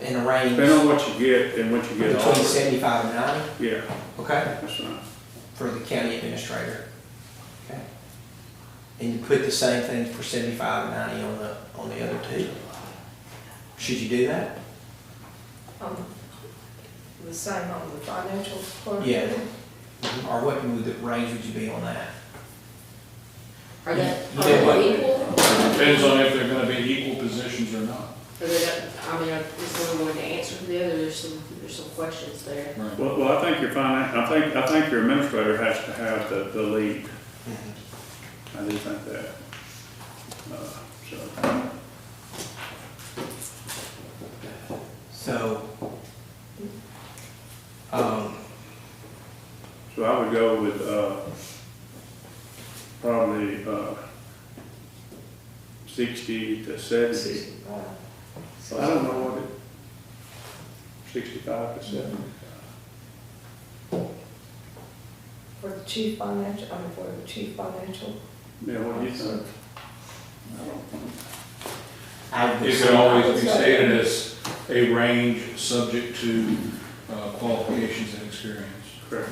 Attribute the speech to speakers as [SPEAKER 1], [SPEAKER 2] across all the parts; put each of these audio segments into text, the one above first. [SPEAKER 1] in the range
[SPEAKER 2] Depending on what you get and what you get
[SPEAKER 1] between
[SPEAKER 2] offered.
[SPEAKER 1] seventy-five and ninety,
[SPEAKER 2] Yeah,
[SPEAKER 1] okay,
[SPEAKER 2] that's right.
[SPEAKER 1] for the county administrator. Okay. And you put the same thing for seventy-five and ninety on the, on the other two. Should you do that?
[SPEAKER 3] Um, The same on the financial part?
[SPEAKER 1] Yeah. Mm-hmm. Or what would the range would you be on that?
[SPEAKER 4] Are that,
[SPEAKER 1] You
[SPEAKER 4] are
[SPEAKER 1] did what?
[SPEAKER 4] they equal?
[SPEAKER 5] Depends on if they're gonna be equal positions or not.
[SPEAKER 4] Or they don't- I mean, is one going to answer to the other? There's some, there's some questions there.
[SPEAKER 5] Right.
[SPEAKER 2] Well, well, I think your finance, I think, I think your administrator has to have the, the lead. I do think that. Uh, So,
[SPEAKER 1] So, um,
[SPEAKER 2] so I would go with, uh, probably, uh, sixty to seventy. I don't know what it, sixty-five to seventy.
[SPEAKER 3] For the chief financial, I mean, for the chief financial.
[SPEAKER 2] Yeah, what do you think?
[SPEAKER 1] I would.
[SPEAKER 5] It can always be stated as a range subject to uh, qualifications and experience.
[SPEAKER 2] Correct.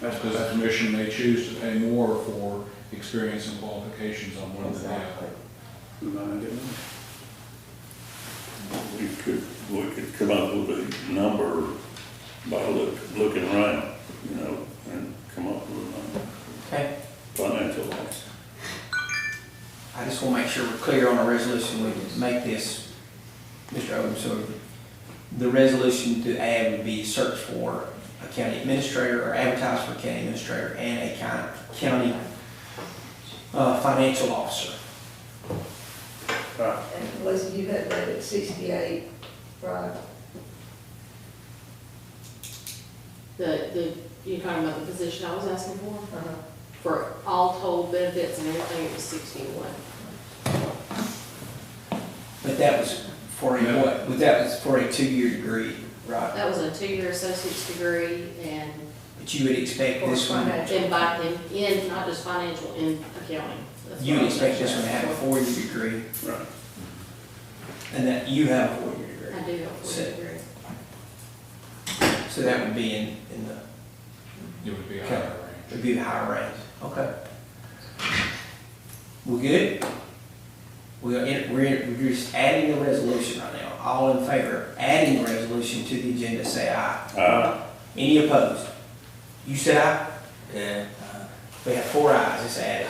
[SPEAKER 2] That's,
[SPEAKER 5] Because the
[SPEAKER 2] that's,
[SPEAKER 5] commission may choose to pay more for experience and qualifications on one than the
[SPEAKER 3] uh,
[SPEAKER 5] other.
[SPEAKER 2] mine, didn't it?
[SPEAKER 6] We could, we could come up with a number by look, looking around, you know, and come up with a number,
[SPEAKER 1] Okay,
[SPEAKER 6] financial loss.
[SPEAKER 1] I just want to make sure we're clear on our resolution, we can make this, Mr. Odom, so the resolution to add would be search for a county administrator or advertise for county administrator and a county, county uh, financial officer.
[SPEAKER 2] Right.
[SPEAKER 3] And Leslie, you had that at sixty-eight, right?
[SPEAKER 4] The, the, you're talking about the position I was asking for?
[SPEAKER 3] Uh-huh.
[SPEAKER 4] For all told benefits and everything, it was sixty-one.
[SPEAKER 1] But that was for a,
[SPEAKER 5] Yeah.
[SPEAKER 1] what, but that was for a two-year degree, right?
[SPEAKER 4] That was a two-year associate's degree and
[SPEAKER 1] But you would expect this one,
[SPEAKER 4] invite them in, not just financial, in accounting. That's
[SPEAKER 1] you
[SPEAKER 4] what
[SPEAKER 1] would
[SPEAKER 4] I was
[SPEAKER 1] expect this one to
[SPEAKER 4] asking
[SPEAKER 1] have a
[SPEAKER 4] for.
[SPEAKER 1] four-year degree,
[SPEAKER 2] Right.
[SPEAKER 1] and that you have a four-year degree.
[SPEAKER 4] I do have a four-year
[SPEAKER 1] Set.
[SPEAKER 4] degree.
[SPEAKER 1] So that would be in, in the
[SPEAKER 5] It would be a higher range.
[SPEAKER 1] It'd be the higher range, okay. We good? We are, in- we're, in- we're just adding the resolution right now. All in favor, of adding the resolution to the agenda, say aye.
[SPEAKER 6] Aye.
[SPEAKER 1] Any opposed? You said aye? Yeah. We have four ayes, it's added.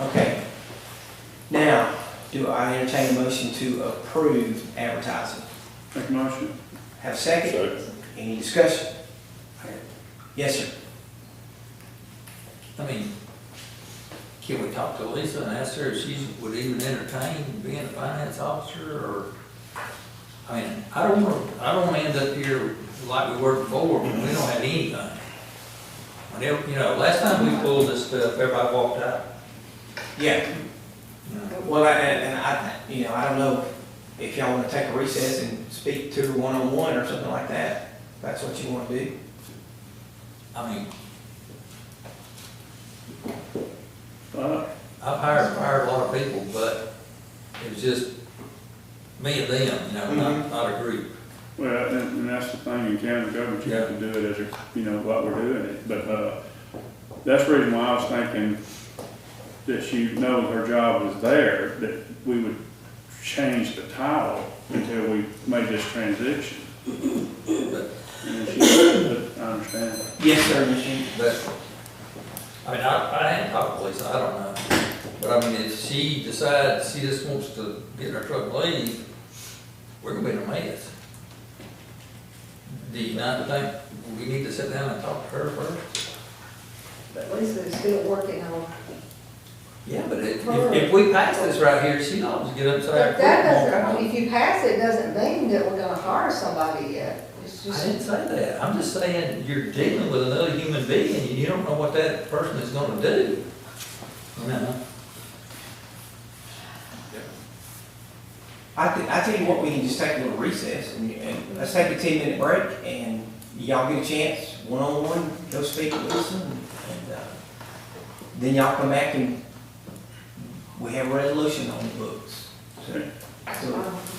[SPEAKER 1] Okay. Now, do I entertain a motion to approve advertising?
[SPEAKER 2] Make a motion.
[SPEAKER 1] Have a second?
[SPEAKER 6] So,
[SPEAKER 1] Any discussion? Yes, sir.
[SPEAKER 7] I mean, can we talk to Lisa and ask her if she would even entertain being a finance officer or? I mean, I don't want, I don't want to end up here like we were before, when we don't have anything. Whenever, you know, last time we pulled this stuff, everybody walked out.
[SPEAKER 1] Yeah. Well, I- and, and I, you know, I don't know if y'all wanna take a recess and speak to her one-on-one or something like that, if that's what you wanna do.
[SPEAKER 7] I mean,
[SPEAKER 2] Uh,
[SPEAKER 7] I've hired, hired a lot of people, but it was just me and them, you know, not, not a group.
[SPEAKER 2] Well, and, and that's the thing in county government, you have to do it as, a you know, what we're doing it, but, uh, that's the reason why I was thinking that she know her job was there, that we would change the title until we made this transition.
[SPEAKER 7] But
[SPEAKER 2] And then she, but I understand.
[SPEAKER 1] Yes, sir, Machine.
[SPEAKER 7] But, I mean, I, I hadn't talked to Lisa, I don't know. But I mean, if she decides she just wants to get in her truck and leave, we're gonna be in a mess. Do you not think we need to sit down and talk to her first?
[SPEAKER 3] But Lisa is still working on,
[SPEAKER 7] Yeah, but if, if- if we pass this right here, she'll always get upside.
[SPEAKER 3] but that doesn't, if you pass it, doesn't mean that we're gonna hire somebody yet. It's
[SPEAKER 7] I
[SPEAKER 3] just,
[SPEAKER 7] didn't say that, I'm just saying, you're dealing with another human being, and you don't know what that person is gonna do. You know?
[SPEAKER 1] I thi- I tell you what, we can just take a little recess and, and let's take a ten-minute break and y'all get a chance, one-on-one, go speak with Lisa and, and, uh, then y'all come back and we have a resolution on the books. So-
[SPEAKER 3] um,